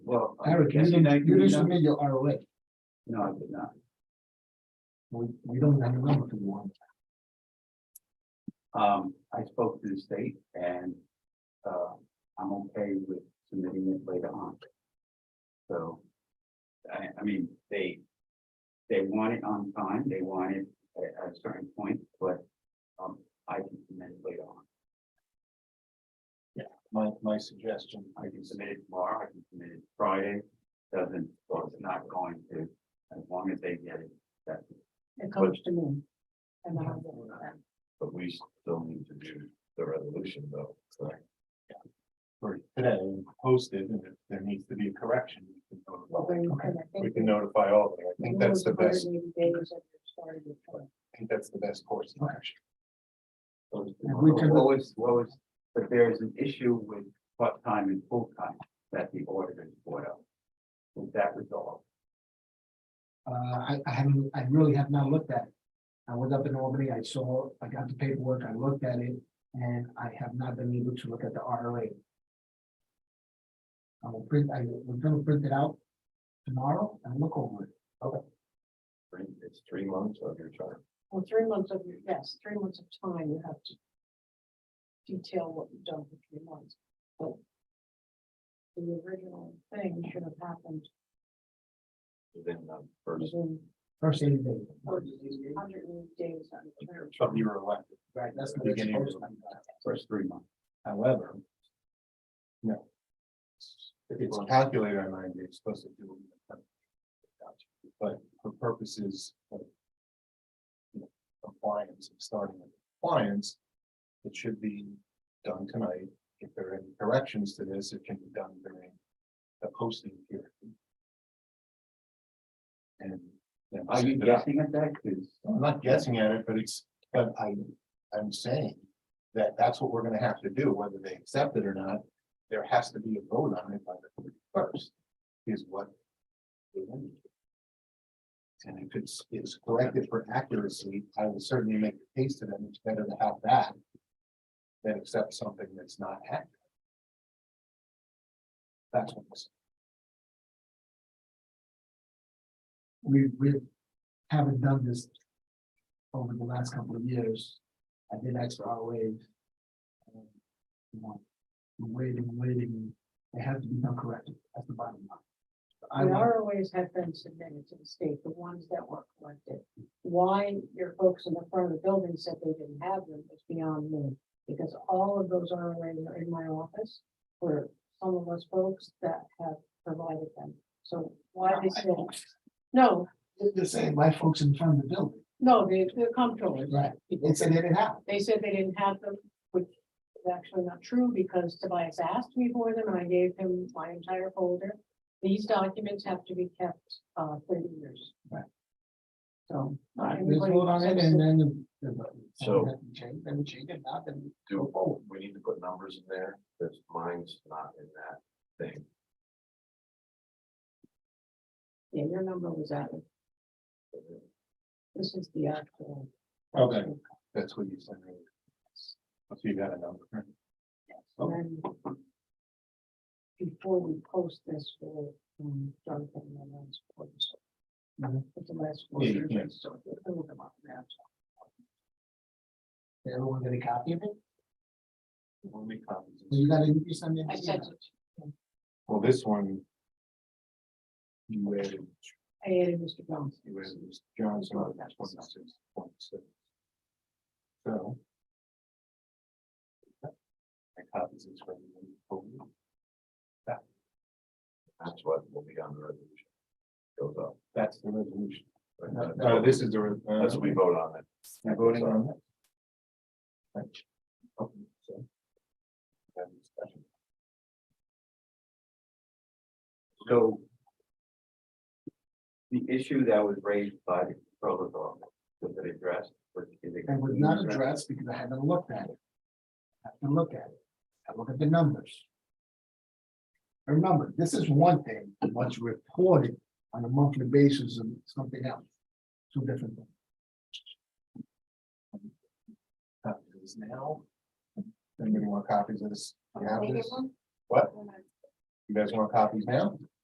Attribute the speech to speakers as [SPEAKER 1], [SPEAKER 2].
[SPEAKER 1] Eric, you
[SPEAKER 2] uh, Yes,
[SPEAKER 1] didn't,
[SPEAKER 2] thank
[SPEAKER 1] you
[SPEAKER 2] you,
[SPEAKER 1] didn't
[SPEAKER 2] yeah.
[SPEAKER 1] submit your ROA.
[SPEAKER 2] No, I did not.
[SPEAKER 1] We, we don't have a number for one.
[SPEAKER 2] Um, I spoke to the state and, uh, I'm okay with submitting it later on. So, I, I mean, they, they want it on time, they want it at, at a certain point, but, um, I can submit it later on.
[SPEAKER 1] My, my suggestion.
[SPEAKER 2] I can submit it tomorrow, I can submit it Friday, doesn't, well, it's not going to, as long as they get it, that's,
[SPEAKER 3] It comes to me. And I will,
[SPEAKER 4] But we still need to do the resolution though, so.
[SPEAKER 1] For today, posted, and if there needs to be a correction. we can go to-
[SPEAKER 3] well, we can, I think.
[SPEAKER 4] We can notify all of them. I think that's the best, I
[SPEAKER 3] 180 days of the start of the term.
[SPEAKER 4] think that's the best course of action.
[SPEAKER 1] And we can-
[SPEAKER 2] What was, what was, but there is an issue with part-time and full-time that the auditors brought up. Was that resolved?
[SPEAKER 1] Uh, I, I haven't, I really have not looked at it. I was up in Albany, I saw, I got the paperwork, I looked at it, and I have not been able to look at the ROA. I will print, I, we're gonna print it out tomorrow and look over it.
[SPEAKER 4] Three- It's three months of your term.
[SPEAKER 3] Well, three months of, your yes, three months of time, you have to. Detail what you've done for three months, but. The original thing should have happened
[SPEAKER 4] Within the first
[SPEAKER 3] within
[SPEAKER 1] First eighty days.
[SPEAKER 3] hundred and eighty days on the term.
[SPEAKER 1] From you were elected. Right, that's what it's
[SPEAKER 4] Beginning of-
[SPEAKER 1] supposed to be.
[SPEAKER 2] First three months.
[SPEAKER 1] However. No. It's calculated on nine days, supposed to do. it. But for purposes of. you know, Compliance, and starting with compliance. It should be done tonight. If there are any corrections to this, it can be done during the posting period. And. then
[SPEAKER 2] Are you
[SPEAKER 1] send it out.
[SPEAKER 2] guessing at that? Because
[SPEAKER 1] I'm not guessing at it, but it's, but I, I'm saying that that's what we're gonna have to do, whether they accept it or not. There has to be a vote on it by the first, is what. they want. And if it's, it's corrected for accuracy, I will certainly make the case to them, it's better to have that than accept something that's not accurate. That's what I'm saying. We, we haven't done this over the last couple of years. I did ask for our wave. and, You know, waiting, waiting, they have to be done correctly, that's the bottom
[SPEAKER 3] The
[SPEAKER 1] line. I, want-
[SPEAKER 3] ROAs have been submitted to the state, the ones that were collected. Why your folks in the front of the building said they didn't have them is beyond me. Because all of those ROAs are in my office for some of us folks that have provided them. So why they said, no,
[SPEAKER 1] they're saying my folks in front of the building,
[SPEAKER 3] no, they, they're comptrollers.
[SPEAKER 1] right, they said they didn't have, it.
[SPEAKER 3] They said they didn't have them, which is actually not true because Tobias asked me for them and I gave him my entire folder. These documents have to be kept uh thirty years.
[SPEAKER 1] Right.
[SPEAKER 3] So. not
[SPEAKER 1] Alright, we
[SPEAKER 3] everybody
[SPEAKER 1] vote on it and
[SPEAKER 3] accepts it.
[SPEAKER 1] then. the- the-
[SPEAKER 4] So-
[SPEAKER 1] Change, then we change it, not then.
[SPEAKER 4] do, oh, we need to put numbers in there, because mine's not in that thing.
[SPEAKER 3] Yeah, your number was added. This is the actual.
[SPEAKER 1] Okay. That's what you said. So you got a number.
[SPEAKER 4] Oh.
[SPEAKER 3] And then Before we post this for um, Jonathan and Ann's reports.
[SPEAKER 4] Mm-hmm.
[SPEAKER 1] Mhm.
[SPEAKER 3] It's the last.
[SPEAKER 1] Yeah, you
[SPEAKER 3] quarter,
[SPEAKER 1] can.
[SPEAKER 3] so we'll look them up now.
[SPEAKER 1] Everyone get a copy of it?
[SPEAKER 4] We'll make copies.
[SPEAKER 1] Well, You gotta, you send it.
[SPEAKER 3] I sent it.
[SPEAKER 4] Well, this one. You added,
[SPEAKER 3] I added Mr. Johnson.
[SPEAKER 4] you added Mr. Johnson on twenty-six point six. So. I copies this from you. That's what will be on the resolution. Goes up. That's the resolution.
[SPEAKER 1] Uh,
[SPEAKER 4] No, this is the. That's what we vote on it.
[SPEAKER 1] You're uh, voting on
[SPEAKER 4] it.
[SPEAKER 2] So the issue that was raised by the controller's office, was it addressed? Was it-
[SPEAKER 1] It was not addressed because I haven't looked at it. I Have to look at it. I look at the numbers. Remember, this is one thing, what's reported on a monthly basis and something else. Two different things.
[SPEAKER 4] Copies now. Anybody want copies of this? You have
[SPEAKER 3] Can I get
[SPEAKER 4] this?
[SPEAKER 3] one?
[SPEAKER 4] What? You guys want copies now?